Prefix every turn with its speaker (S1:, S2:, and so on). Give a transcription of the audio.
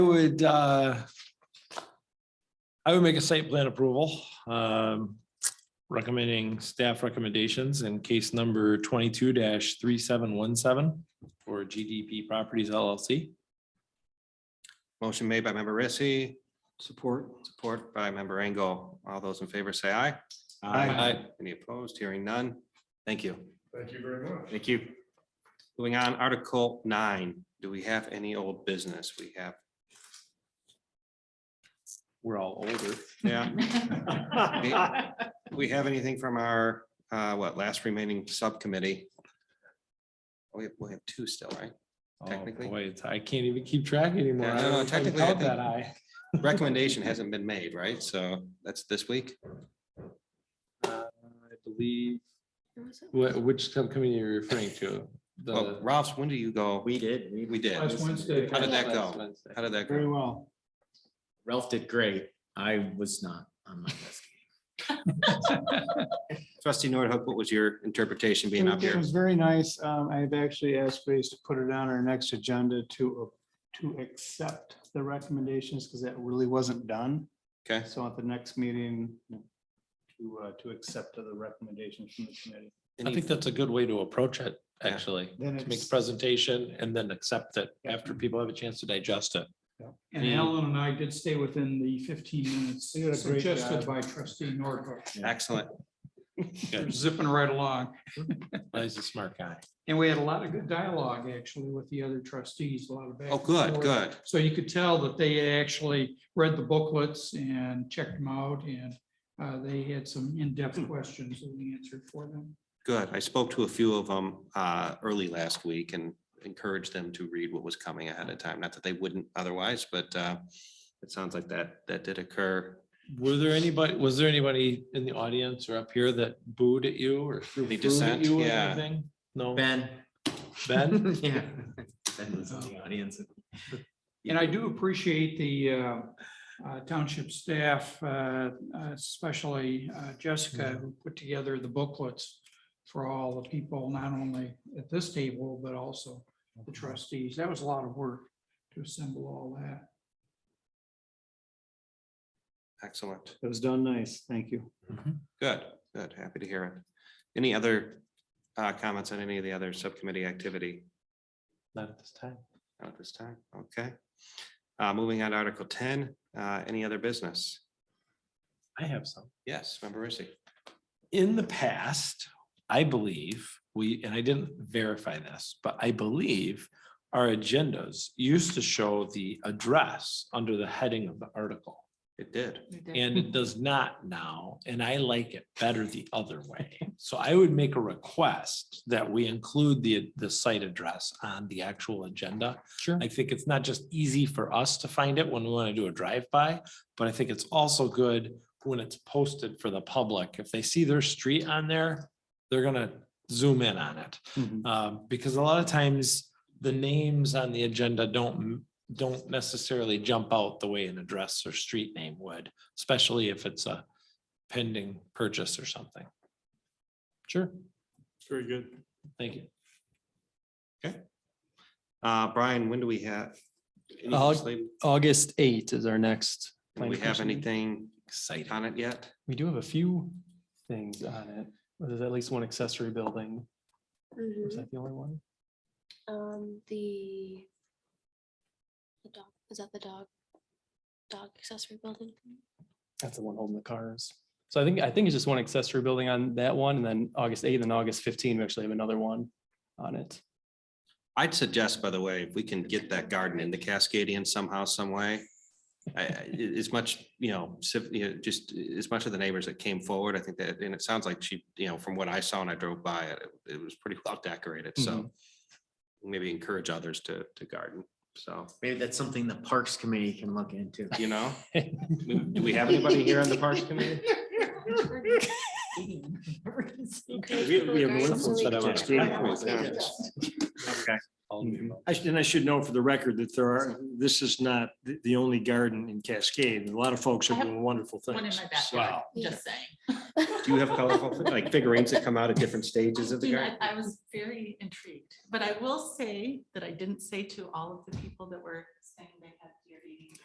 S1: would, uh, I would make a site plan approval, um, recommending staff recommendations in case number twenty-two three seven one seven for GDP Properties LLC.
S2: Motion made by member Rissy. Support. Support by member Engel. All those in favor say aye.
S1: Aye.
S2: Any opposed? Hearing none. Thank you.
S3: Thank you very much.
S2: Thank you. Moving on, Article nine, do we have any old business? We have,
S1: We're all older.
S2: yeah, we have anything from our, uh, what, last remaining subcommittee? Oh, We have, we have two still, right?
S1: Oh,
S2: Technically.
S1: Boy, it's- I can't even keep track anymore.
S2: Yeah, no,
S1: I
S2: no,
S1: don't- I
S2: technically,
S1: count
S2: I think-
S1: That I.
S2: Recommendation hasn't been made, right? So that's this week.
S1: Uh, I believe, wh- which company you're referring to?
S2: Well,
S1: The-
S2: Ralphs, when do you go?
S4: We did.
S2: We did.
S3: Last Wednesday.
S2: How did that
S1: Last
S2: go?
S1: Wednesday.
S2: How did that
S3: Very
S2: go?
S3: well.
S4: Ralph did great. I was not on my desk.
S2: Trustee Nordhook, what was your interpretation being up
S3: It
S2: here?
S3: was very nice. Um, I've actually asked Grace to put it on our next agenda to, uh, to accept the recommendations because that really wasn't done.
S2: Okay.
S3: So at the next meeting, to, uh, to accept the recommendations from the committee.
S1: I think that's a good way to approach it,
S2: Yeah.
S1: actually.
S3: Then
S1: to make a
S3: it's,
S1: presentation and then accept it after people have a chance to digest it.
S5: And Alan and I did stay within the fifteen minutes
S3: You did a great
S5: suggested
S3: job.
S5: by trustee Norwood.
S2: Excellent.
S1: Good.
S5: Zipping right along.
S1: He's a smart guy.
S5: And we had a lot of good dialogue actually with the other trustees, a lot of. back
S2: Oh,
S5: and
S2: good,
S5: forth.
S2: good.
S5: So you could tell that they actually read the booklets and checked them out and uh, they had some
S2: Hmm.
S5: in-depth questions that we answered for them.
S2: Good. I spoke to a few of them uh, early last week and encouraged them to read what was coming ahead of time. Not that they wouldn't otherwise, but uh, it sounds like that, that did occur.
S1: Were there anybody, was there anybody in the audience or up here that booed at you or threw
S2: Any
S1: food at
S2: dissent?
S1: you or
S2: Yeah.
S1: anything? No,
S4: Ben.
S1: Ben?
S4: Yeah. Ben was in the audience.
S5: And I do appreciate the uh, uh, township staff, uh, especially uh, Jessica, who put together the booklets for all the people, not only at this table, but also the trustees. That was a lot of work to assemble all that.
S2: Excellent.
S3: it was done nice. Thank you.
S2: Good, good. Happy to hear it. Any other uh, comments on any of the other subcommittee activity
S1: Not at this time.
S2: at this time? Okay. Uh, Moving on to Article ten, uh, any other business?
S1: I have some.
S2: Yes, member Rissy.
S1: in the past, I believe we, and I didn't verify this, but I believe our agendas used to show the address under the heading of the article.
S2: It did.
S1: And it does not now, and I like it better the other way. So I would make a request that we include the, the site address on the actual agenda.
S4: Sure.
S1: I think it's not just easy for us to find it when we want to do a drive-by, but I think it's also good when it's posted for the public. If they see their street on there, they're gonna zoom in on it.
S6: Mm-hmm.
S1: Um, because a lot of times the names on the agenda don't, don't necessarily jump out the way an address or street name would, especially if it's a pending purchase or something. Sure. Very good. Thank you.
S2: Uh, Brian, when do we have? any
S7: I'll-
S2: sleep?
S7: August eighth is our next.
S2: Do we
S7: planning
S2: have
S7: commission meeting.
S2: anything
S1: Exciting.
S2: on it yet?
S7: We do have a few things on it. There's at least one accessory building. Was
S8: Mhm.
S7: that the only one?
S8: Um, the. The dog, is that the dog? Dog accessory building?
S7: That's the one holding the cars. So I think, I think it's just one accessory building on that one and then August eighth and August fifteen, we actually have another one on it.
S2: I'd suggest, by the way, if we can get that garden in the Cascadian somehow, some way. I, I- a- as much, you know, civ- you know, just as much of the neighbors that came forward, I think that, and it sounds like she, you know, from what I saw and I drove by it, it- it was pretty well decorated, so. Maybe encourage others to, to garden, so,
S4: Maybe that's something the Parks Committee can look into.
S2: you know, do we have anybody here on the Parks Committee?
S8: Encourage
S2: we-
S8: people
S2: we
S8: to
S2: have
S8: garden
S2: one
S8: so we
S1: set up
S8: can-
S1: on All of the above.
S6: I should, and I should note for the record that there are, this is not the, the only garden in Cascade. A lot of folks are doing wonderful
S9: One in
S6: things.
S9: my backyard,
S8: Yeah.
S9: just saying.
S2: Do you have colorful, like figurines that come out at different stages of the
S9: You know,
S2: garden?
S9: I I was very intrigued, but I will say that I didn't say to all of the people that were saying